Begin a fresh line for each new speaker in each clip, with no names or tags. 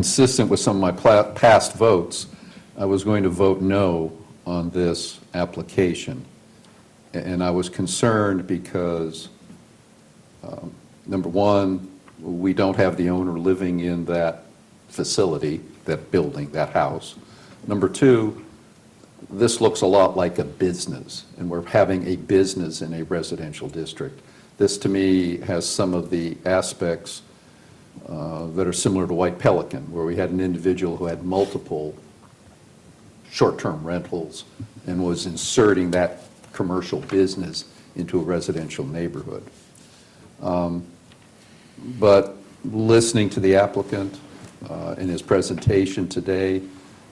consistent with some of my pla- past votes, I was going to vote no on this application. A- And I was concerned because, um, number one, we don't have the owner living in that facility, that building, that house. Number two, this looks a lot like a business, and we're having a business in a residential district. This, to me, has some of the aspects uh, that are similar to White Pelican, where we had an individual who had multiple short-term rentals and was inserting that commercial business into a residential neighborhood. Um, But listening to the applicant uh, in his presentation today,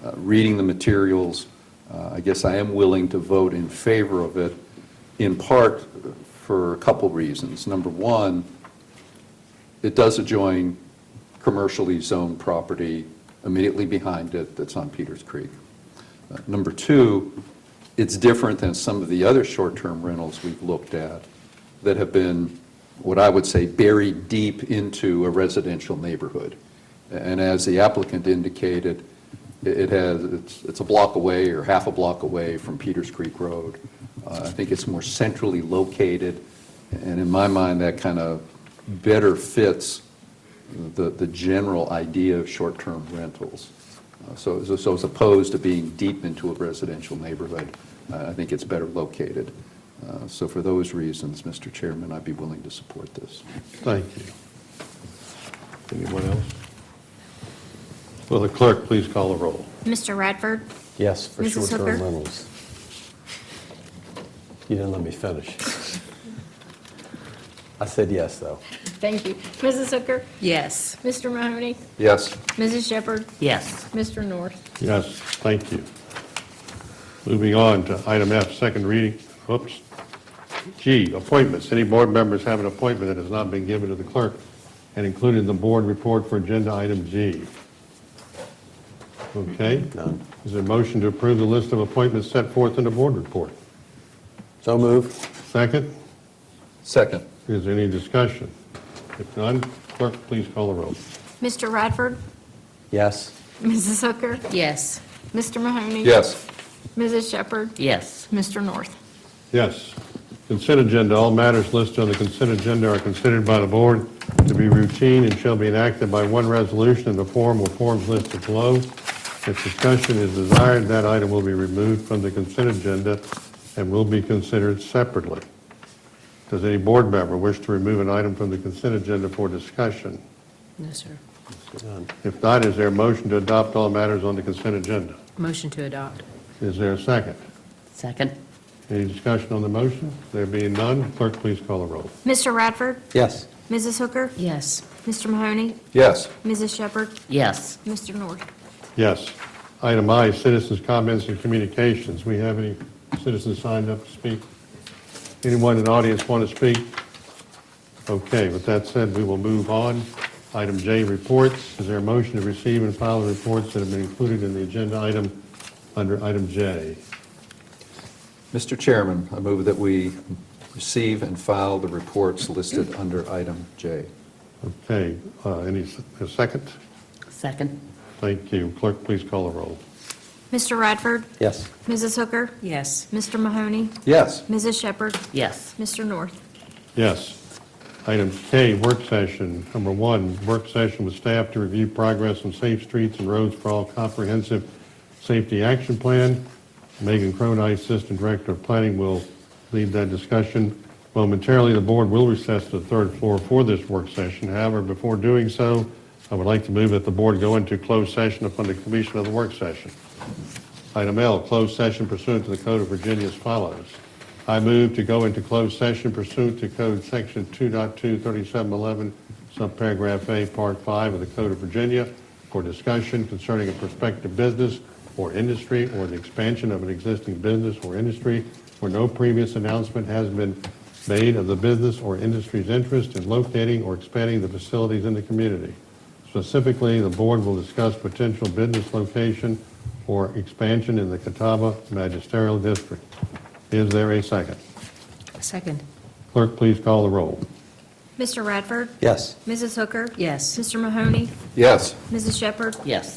uh, reading the materials, uh, I guess I am willing to vote in favor of it, in part for a couple reasons. Number one, it does adjoin commercially zoned property immediately behind it that's on Peters Creek. Uh, Number two, it's different than some of the other short-term rentals we've looked at that have been, what I would say, buried deep into a residential neighborhood. And as the applicant indicated, it it has, it's it's a block away or half a block away from Peters Creek Road. Uh, I think it's more centrally located, and in my mind, that kind of better fits the, the general idea of short-term rentals. Uh, So, so- so as opposed to being deep into a residential neighborhood, uh, I think it's better located. Uh, So for those reasons, Mr. Chairman, I'd be willing to support this.
Thank you. Anyone else? Will the clerk please call the roll?
Mr. Radford?
Yes, for
Mrs. Hooker?
short-term rentals. You didn't let me finish. I said yes, though.
Thank you. Mrs. Hooker?
Yes.
Mr. Mahoney?
Yes?
Mrs. Shepherd?
Yes.
Mr. North?
Yes, thank you. Moving on to item F, second reading, whoops. G, appointments. Any board members have an appointment that has not been given to the clerk and included in the board report for agenda item G? Okay? None. Is there a motion to approve the list of appointments set forth in the board report?
So move.
Second,
Second?
is there any discussion? If none, clerk, please call the roll.
Mr. Radford?
Yes.
Mrs. Hooker?
Yes.
Mr. Mahoney?
Yes.
Mrs. Shepherd?
Yes.
Mr. North?
Yes. Consent agenda, all matters listed on the consent agenda are considered by the board to be routine and shall be enacted by one resolution in the form or forms listed below. If discussion is desired, that item will be removed from the consent agenda and will be considered separately. Does any board member wish to remove an item from the consent agenda for discussion?
No, sir.
If not, is there a motion to adopt all matters on the consent agenda?
Motion to adopt.
Is there a second?
Second.
Any discussion on the motion? There being none, clerk, please call the roll.
Mr. Radford?
Yes.
Mrs. Hooker?
Yes.
Mr. Mahoney?
Yes.
Mrs. Shepherd?
Yes.
Mr. North?
Yes. Item I, citizens' comments and communications. We have any citizens signed up to speak? Anyone in the audience want to speak? Okay, with that said, we will move on. Item J, reports. Is there a motion to receive and file the reports that have been included in the agenda item under item J?
Mr. Chairman, I move that we receive and file the reports listed under item J.
Okay, uh, any, s- a second?
Second.
Thank you. Clerk, please call the roll.
Mr. Radford?
Yes.
Mrs. Hooker?
Yes.
Mr. Mahoney?
Yes?
Mrs. Shepherd?
Yes.
Mr. North?
Yes. Item K, work session. Number one, work session with staff to review progress on safe streets and roads for all comprehensive safety action plan. Megan Cronice, Assistant Director of Planning, will lead that discussion. Momentarily, the board will recess to the third floor for this work session. However, before doing so, I would like to move that the board go into closed session upon the completion of the work session. Item L, closed session pursuant to the Code of Virginia as follows. I move to go into closed session pursuant to Code Section 2.23711, subparagraph A, Part 5 of the Code of Virginia, for discussion concerning a prospective business or industry or the expansion of an existing business or industry where no previous announcement has been made of the business or industry's interest in locating or expanding the facilities in the community. Specifically, the board will discuss potential business location or expansion in the Catawba Magisterial District. Is there a second?
Second.
Clerk, please call the roll.
Mr. Radford?
Yes.
Mrs. Hooker?
Yes.
Mr. Mahoney?
Yes.
Mrs. Shepherd?
Yes.